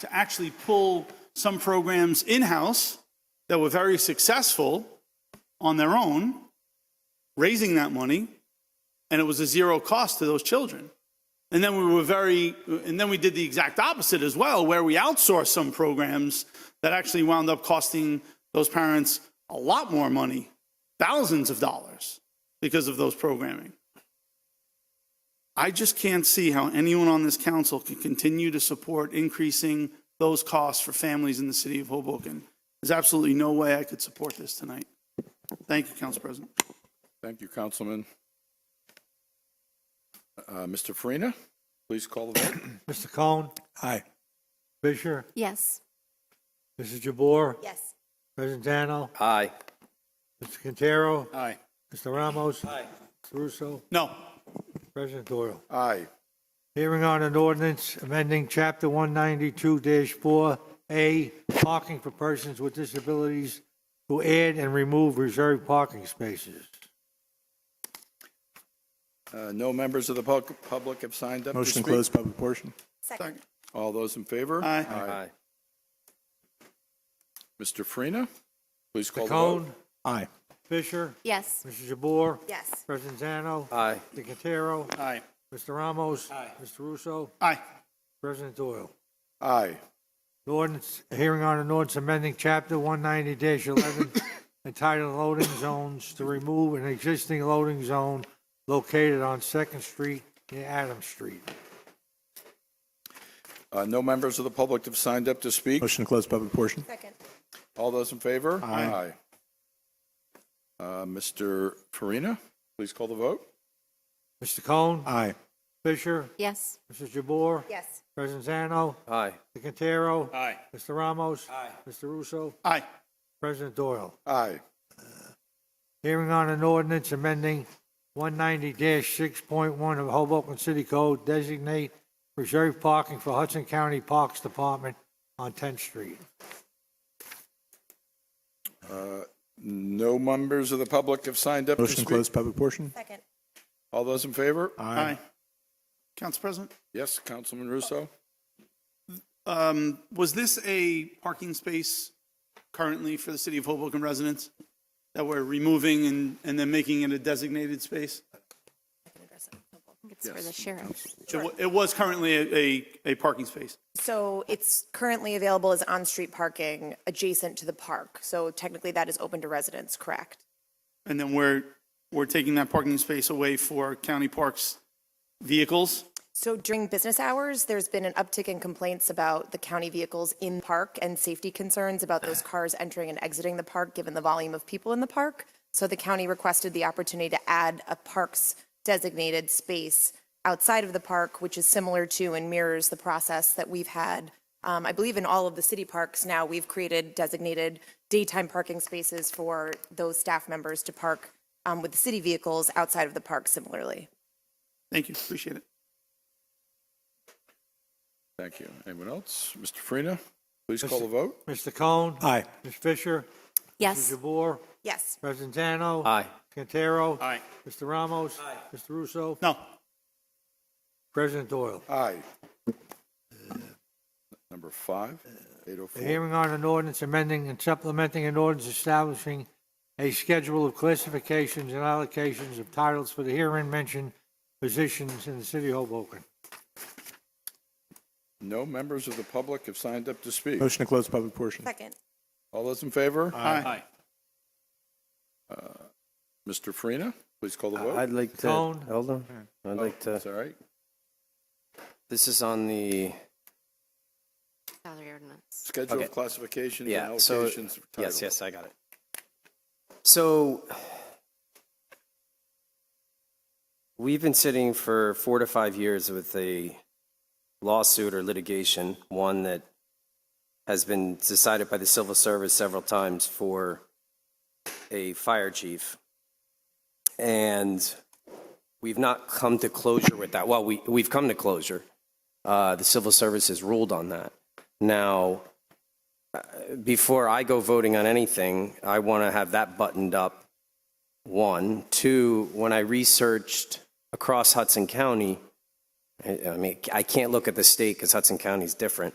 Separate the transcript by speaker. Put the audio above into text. Speaker 1: to actually pull some programs in-house that were very successful on their own, raising that money, and it was a zero cost to those children. And then we were very, and then we did the exact opposite as well, where we outsourced some programs that actually wound up costing those parents a lot more money, thousands of dollars, because of those programming. I just can't see how anyone on this council can continue to support increasing those costs for families in the city of Hoboken. There's absolutely no way I could support this tonight. Thank you, Council President.
Speaker 2: Thank you, Councilman. Uh, Mr. Farina, please call the vote.
Speaker 3: Mr. Cohen,
Speaker 2: Aye.
Speaker 3: Fisher,
Speaker 4: Yes.
Speaker 3: Mrs. Jabour,
Speaker 4: Yes.
Speaker 3: President Zano,
Speaker 5: Aye.
Speaker 3: Mr. Quintero,
Speaker 2: Aye.
Speaker 3: Mr. Ramos. Aye. Mr. Russo,
Speaker 1: No,
Speaker 3: President Doyle.
Speaker 2: Aye.
Speaker 3: Hearing on an ordinance amending Chapter 192-4A, parking for persons with disabilities to add and remove reserved parking spaces.
Speaker 2: Uh, No members of the pub- public have signed up to
Speaker 6: Motion to
Speaker 2: speak.
Speaker 6: close public portion.
Speaker 4: Second.
Speaker 2: All those in favor?
Speaker 1: Aye.
Speaker 5: Aye.
Speaker 2: Mr. Farina, please call the vote.
Speaker 3: Cohen,
Speaker 6: Aye.
Speaker 3: Fisher,
Speaker 4: Yes.
Speaker 3: Mrs. Jabour,
Speaker 4: Yes.
Speaker 3: President Zano,
Speaker 5: Aye.
Speaker 3: Mr. Quintero,
Speaker 1: aye.
Speaker 3: Mr. Ramos. Mr. Russo,
Speaker 1: Aye.
Speaker 3: President Doyle.
Speaker 2: Aye.
Speaker 3: An Ordinance, a hearing on an ordinance amending chapter one ninety eleven entitled loading zones to remove an existing loading zone located on Second Street and Adams Street.
Speaker 2: Uh, No members of the public have signed up to speak.
Speaker 6: Motion to close public portion.
Speaker 4: Second.
Speaker 2: All those in favor?
Speaker 1: Aye.
Speaker 2: Uh, Mr. Farina, please call the vote.
Speaker 3: Mr. Cohen,
Speaker 6: Aye.
Speaker 3: Fisher,
Speaker 4: Yes.
Speaker 3: Mrs. Jabour,
Speaker 4: Yes.
Speaker 3: President Zano,
Speaker 5: Aye.
Speaker 3: Mr. Quintero,
Speaker 1: Aye.
Speaker 3: Mr. Ramos, Mr. Russo,
Speaker 1: Aye.
Speaker 3: President Doyle.
Speaker 2: Aye.
Speaker 3: Hearing on an ordinance amending one ninety six point one of Hoboken City Code designate reserved parking for Hudson County Parks Department on Tenth Street.
Speaker 2: No members of the public have signed up to
Speaker 6: Motion to
Speaker 2: speak.
Speaker 6: close public portion.
Speaker 4: Second.
Speaker 2: All those in favor?
Speaker 1: Aye. Council President,
Speaker 2: Yes, Councilman Russo?
Speaker 1: um, was this a parking space currently for the city of Hoboken residents that we're removing and, and then making it a designated space?
Speaker 4: It's for the sheriff.
Speaker 1: It wa- It was currently a, a, a parking space.
Speaker 7: So it's currently available as on-street parking adjacent to the park. So technically, that is open to residents, correct?
Speaker 1: And then we're, we're taking that parking space away for county parks vehicles.
Speaker 7: So during business hours, there's been an uptick in complaints about the county vehicles in park and safety concerns about those cars entering and exiting the park, given the volume of people in the park. So the county requested the opportunity to add a parks designated space outside of the park, which is similar to and mirrors the process that we've had. Um, I believe in all of the city parks now, we've created designated daytime parking spaces for those staff members to park um, with the city vehicles outside of the park similarly.
Speaker 1: Thank you, appreciate it.
Speaker 2: Thank you. Anyone else? Mr. Farina, please call the vote.
Speaker 3: Mr. Cohen?
Speaker 6: Aye.
Speaker 3: Ms. Fisher? Mr.
Speaker 4: Yes.
Speaker 3: Jabour?
Speaker 7: Yes.
Speaker 3: President Zano?
Speaker 5: Aye.
Speaker 3: Quintero?
Speaker 1: Aye.
Speaker 3: Mr. Ramos? Mr. Russo?
Speaker 1: No,
Speaker 3: President Doyle.
Speaker 2: Aye. Uh, Number five,
Speaker 5: Uh,
Speaker 3: The
Speaker 2: 804.
Speaker 3: hearing on an ordinance amending and supplementing an ordinance establishing a schedule of classifications and allocations of titles for the herein mentioned positions in the city of Hoboken.
Speaker 2: No members of the public have signed up to speak.
Speaker 6: Motion to close public portion.
Speaker 4: Second.
Speaker 2: All those in favor?
Speaker 1: aye.
Speaker 2: Mr. Farina, please call the vote.
Speaker 5: I'd like to,
Speaker 3: Cone.
Speaker 5: hold on. I'd like to,
Speaker 2: It's all right.
Speaker 5: this is on the,
Speaker 4: Salary ordinance.
Speaker 2: Schedule
Speaker 5: Okay.
Speaker 2: of classifications and
Speaker 5: yeah, so,
Speaker 2: allocations. of
Speaker 5: yes,
Speaker 2: title.
Speaker 5: yes, I got it. So we've been sitting for four to five years with a lawsuit or litigation, one that has been decided by the civil service several times for a fire chief. And we've not come to closure with that. Well, we, we've come to closure. Uh, the civil service has ruled on that. Now, uh, before I go voting on anything, I want to have that buttoned up. One, two, when I researched across Hudson County, I I mean, I can't look at the state because Hudson County is different.